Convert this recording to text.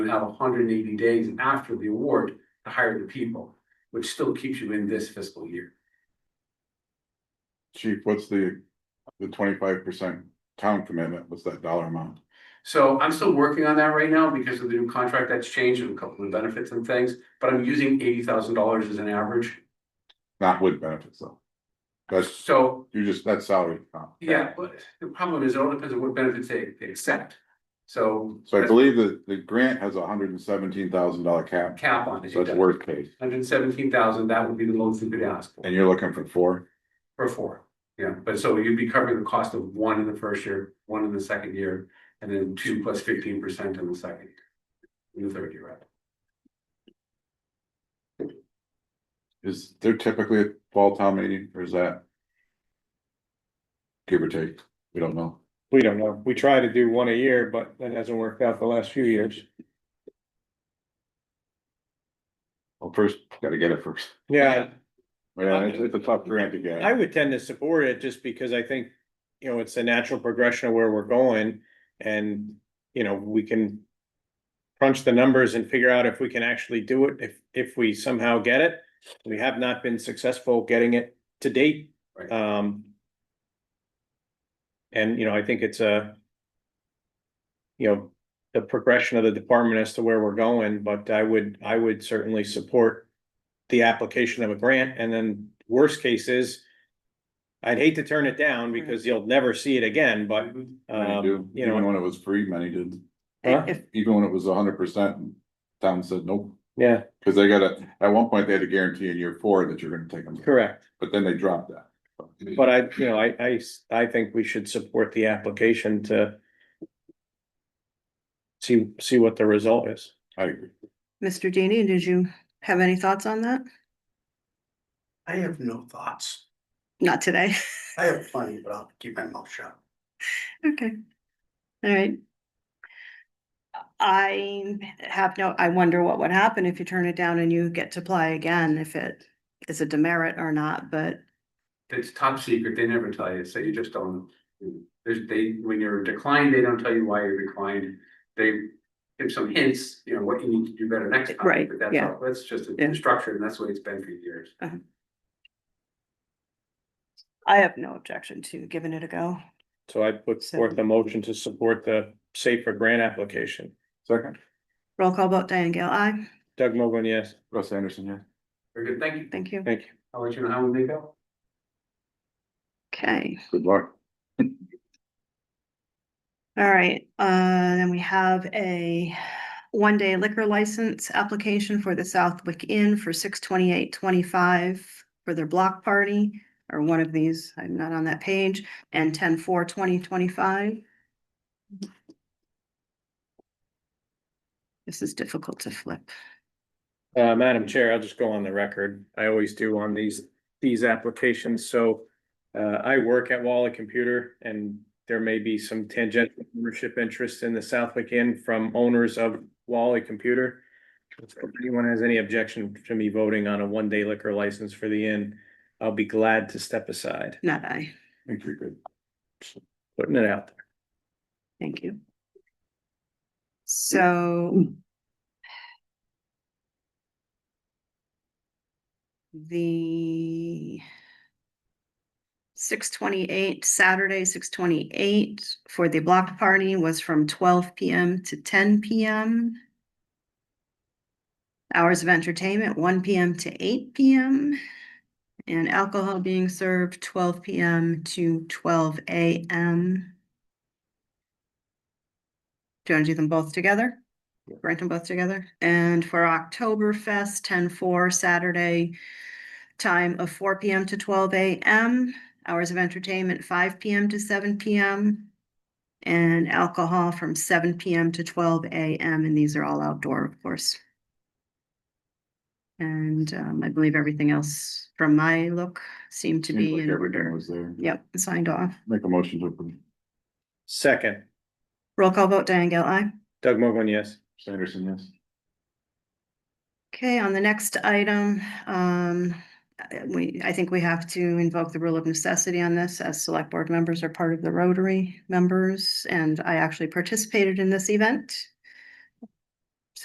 would have hundred and eighty days after the award to hire the people, which still keeps you in this fiscal year. Chief, what's the, the twenty-five percent town commitment, what's that dollar amount? So I'm still working on that right now because of the new contract that's changed and a couple of benefits and things, but I'm using eighty thousand dollars as an average. Not with benefits though. That's, So, you just, that's salary. comp. yeah, but the problem is it all depends on what benefits they, they accept. So. So I believe that the grant has a hundred and seventeen thousand dollar cap, Cap on it. so that's worst case, Hundred seventeen thousand, that would be the lowest you could ask for, and you're looking for four? for four. Yeah, but so you'd be covering the cost of one in the first year, one in the second year, and then two plus fifteen percent in the second. In the third year, right? Is there typically a fall town meeting, or is that? Give or take, we don't know. We don't know. We try to do one a year, but that hasn't worked out the last few years. Well, first, gotta get it first. Yeah, Yeah, it's, it's a tough grant to I get. would tend to support it just because I think, you know, it's a natural progression of where we're going and, you know, we can crunch the numbers and figure out if we can actually do it, if, if we somehow get it. We have not been successful getting it to date. Right. Um, and, you know, I think it's a, you know, the progression of the department as to where we're going, but I would, I would certainly support the application of a grant, and then worst case is I'd hate to turn it down because you'll never see it again, but, Many Mm-hmm. do. um, you Even know, when it was free, many did, Huh? If, even when it was hundred percent, town said nope. yeah, Cause they got a, at one point, they had a guarantee in year four that you're gonna take them, correct. but then they dropped that. But I, you know, I, I, s- I think we should support the application to see, see what the result is. I agree. Mr. Deeney, did you have any thoughts on that? I have no thoughts. Not today. I have plenty, but I'll keep my mouth shut. Okay. All right. I have no, I wonder what would happen if you turn it down and you get to apply again, if it is a demerit or not, but It's top secret, they never tell you, so you just don't. There's, they, when you're declined, they don't tell you why you're declined, they give some hints, you know, what you need to do better next time. Right, But that's yeah. all, that's just Yeah. a structure, and that's the way it's been for years. um, I have no objection to giving it a go. So I put forth a motion to support the safer grant application. Second, Roll call vote, Diane Gale, aye. Doug Mogul, yes, Russ Anderson, yeah. Very good, thank you, Thank you. thank you. I'll let you know how we make out. Okay. Good luck. All right, uh, then we have a one-day liquor license application for the Southwick Inn for six twenty-eight twenty-five for their block party, or one of these, I'm not on that page, and ten four twenty twenty-five. This is difficult to flip. Uh, Madam Chair, I'll just go on the record. I always do on these, these applications, so. Uh, I work at Walla Computer and there may be some tangential ownership interest in the Southwick Inn from owners of Walla Computer. If anyone has any objection to me voting on a one-day liquor license for the inn, I'll be glad to step aside, Not I, Thank you, good. putting it out there. thank you. So. the six twenty-eight, Saturday, six twenty-eight for the block party was from twelve PM to ten PM. Hours of entertainment, one PM to eight PM. And alcohol being served twelve PM to twelve AM. Do you want to do them both together? Rank them both together? And for Oktoberfest, ten-four, Saturday, time of four PM to twelve AM, hours of entertainment, five PM to seven PM, and alcohol from seven PM to twelve AM, and these are all outdoor, of course. And um, I believe everything else from my look seemed to Seems be like in everything order. was there. Yep, signed off. Make a motion to approve. Second, Roll call vote, Diane Gale, aye. Doug Mogul, yes. Anderson, yes. Okay, on the next item, um, uh, we, I think we have to invoke the rule of necessity on this as select board members are part of the Rotary members. And I actually participated in this event